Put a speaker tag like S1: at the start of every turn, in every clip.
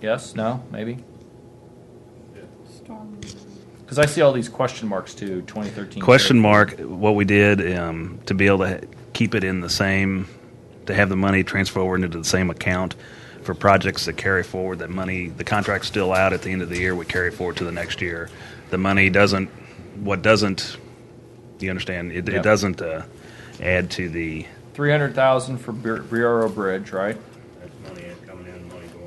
S1: Yes, no, maybe?
S2: Storm.
S1: Because I see all these question marks too, 2013.
S3: Question mark. What we did um, to be able to ha- keep it in the same, to have the money transfer over into the same account for projects that carry forward. That money, the contract's still out at the end of the year. We carry forward to the next year. The money doesn't. What doesn't? You understand? It,
S1: Yeah.
S3: it doesn't uh, add to the.
S1: 300,000 for Bur- Briaro Bridge, right?
S4: That's money in- coming in, money going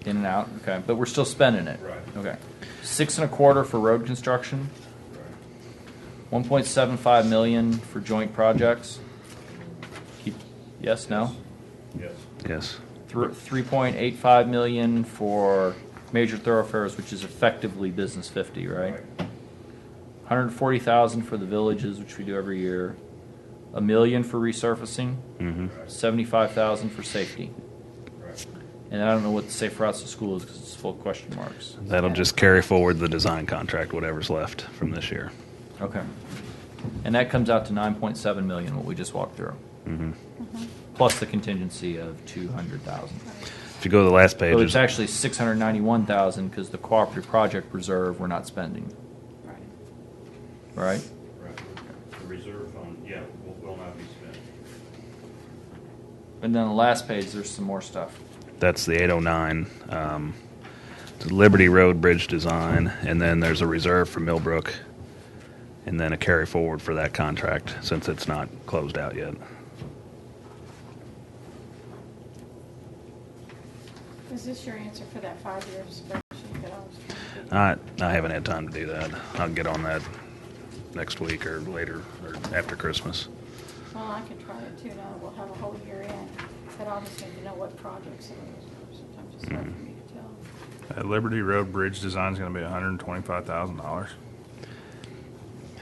S4: out.
S1: In and out, okay, but we're still spending it.
S4: Right.
S1: Okay. Six and a quarter for road construction,
S4: Right.
S1: 1.75 million for joint projects. Keep, yes, no?
S4: Yes,
S3: Yes.
S1: Thr- 3.85 million for major thoroughfares, which is effectively business 50, right?
S4: Right.
S1: 140,000 for the villages, which we do every year. A million for resurfacing,
S3: Mm-hmm.
S4: right,
S1: 75,000 for safety.
S4: right.
S1: And I don't know what the safe routes to school is because it's full of question marks.
S3: That'll just carry forward the design contract, whatever's left from this year.
S1: Okay. And that comes out to 9.7 million, what we just walked through,
S3: hmm
S1: plus the contingency of 200,000.
S3: If you go to the last page,
S1: So it's
S3: there's-
S1: actually 691,000 because the cooperative project reserve we're not spending,
S2: Right.
S1: right?
S4: Right. The reserve fund, yeah, will, will not be spent.
S1: And then the last page, there's some more stuff.
S3: That's the 809. Um, it's Liberty Road Bridge Design, and then there's a reserve for Millbrook, and then a carry forward for that contract since it's not closed out yet.
S2: Is this your answer for that five-year spreadsheet that I was trying to get?
S3: I, I haven't had time to do that. I'll get on that next week or later or after Christmas.
S2: Well, I could try it too, now we'll have a whole year in, but I just need to know what projects it is, sometimes it's hard for me to tell.
S5: That Liberty Road Bridge design's gonna be hundred and twenty-five thousand dollars.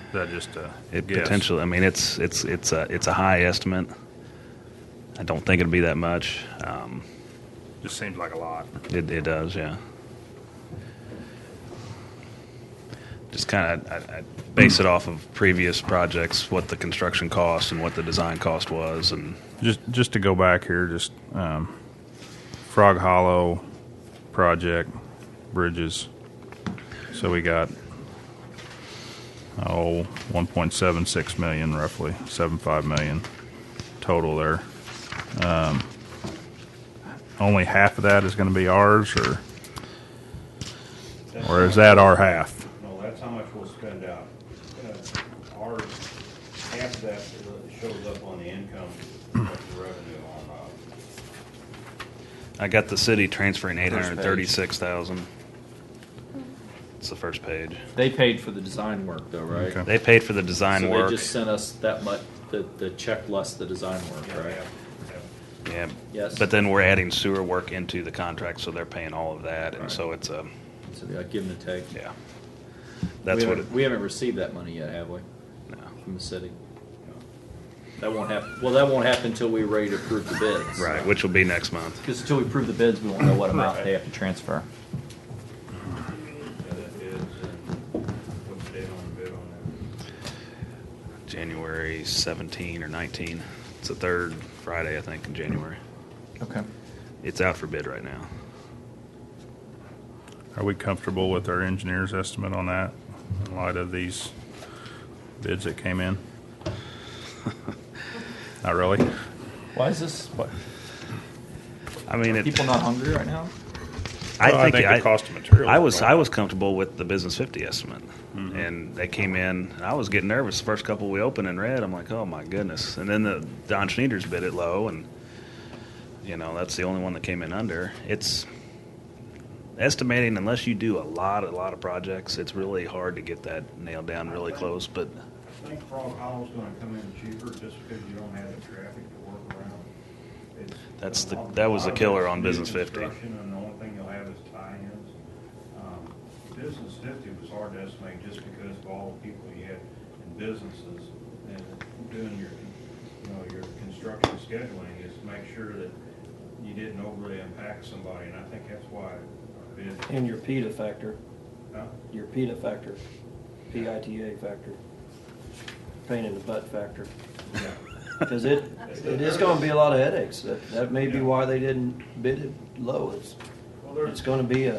S5: Is that just a
S3: It
S5: guess?
S3: potentially, I mean, it's it's it's a it's a high estimate. I don't think it'll be that much. Um,
S5: Just seems like a lot.
S3: It, it does, yeah. Just kind of, I, I base it off of previous projects, what the construction cost and what the design cost was, and
S5: Just, just to go back here, just, um, Frog Hollow project, bridges. So we got, oh, one point seven six million roughly, seven five million total there. Um, only half of that is gonna be ours or,
S4: That's
S5: or is
S4: how-
S5: that our half?
S4: No, that's how much we'll spend out. Uh, Our, half of that shows up on the income, of the revenue on, uh,
S3: I got the city transferring eight
S1: First page.
S3: hundred thirty-six thousand. It's the first page.
S1: They paid for the design work though, right?
S5: Okay.
S3: They paid for the design
S1: so
S3: work.
S1: they just sent us that much, the, the check less the design work,
S4: yeah,
S1: right?
S4: yeah, yeah.
S3: yeah.
S1: Yes.
S3: But then we're adding sewer work into the contract, so they're paying all of that, and so it's a,
S1: So they like, give them a take.
S3: yeah. That's
S1: we
S3: what it.
S1: haven't- we haven't received that money yet, have we?
S3: no.
S1: From the city. That won't happen. Well, that won't happen until we're ready to approve the bids.
S3: Right, which will be next month.
S1: Because until we approve the bids, we won't know what amount they have to transfer.
S4: Yeah, that is, and what's the date on the bid on that?
S3: January 17 or 19. It's the third Friday, I think, in January.
S1: Okay.
S3: It's out for bid right now.
S5: Are we comfortable with our engineer's estimate on that in light of these bids that came in? Not really.
S1: Why is this? What,
S3: I mean, it,
S1: people not hungry right now?
S3: I,
S5: Well,
S3: think I,
S5: the cost of materials.
S3: I was
S5: are
S3: I
S5: going
S3: was comfortable with the business 50 estimate, and they came in. And I was getting nervous the first couple we opened and read. I'm like, oh my goodness. And then the Don Schneider's bid it low, and you know that's the only one that came in under. It's estimating unless you do a lot a lot of projects, it's really hard to get that nailed down really close. But
S4: I think Frog Hollow's gonna come in cheaper just because you don't have the traffic to work around. It's-
S3: That's the- that was the killer on Business 50.
S4: Construction, And the only thing you'll have is tie-ins. Um, Business fifty was hard to estimate just because of all the people you had in businesses and doing your, you know, your construction scheduling is to make sure that you didn't overly impact somebody, and I think that's why our bid.
S6: And your PETA factor,
S4: Huh?
S6: your PETA factor, P-I-T-A factor, pain in the butt factor.
S4: Yeah.
S6: Because it, it is gonna be a lot of headaches. That, that may be why they didn't bid it low. It's
S4: Well, there's-
S6: It's gonna be a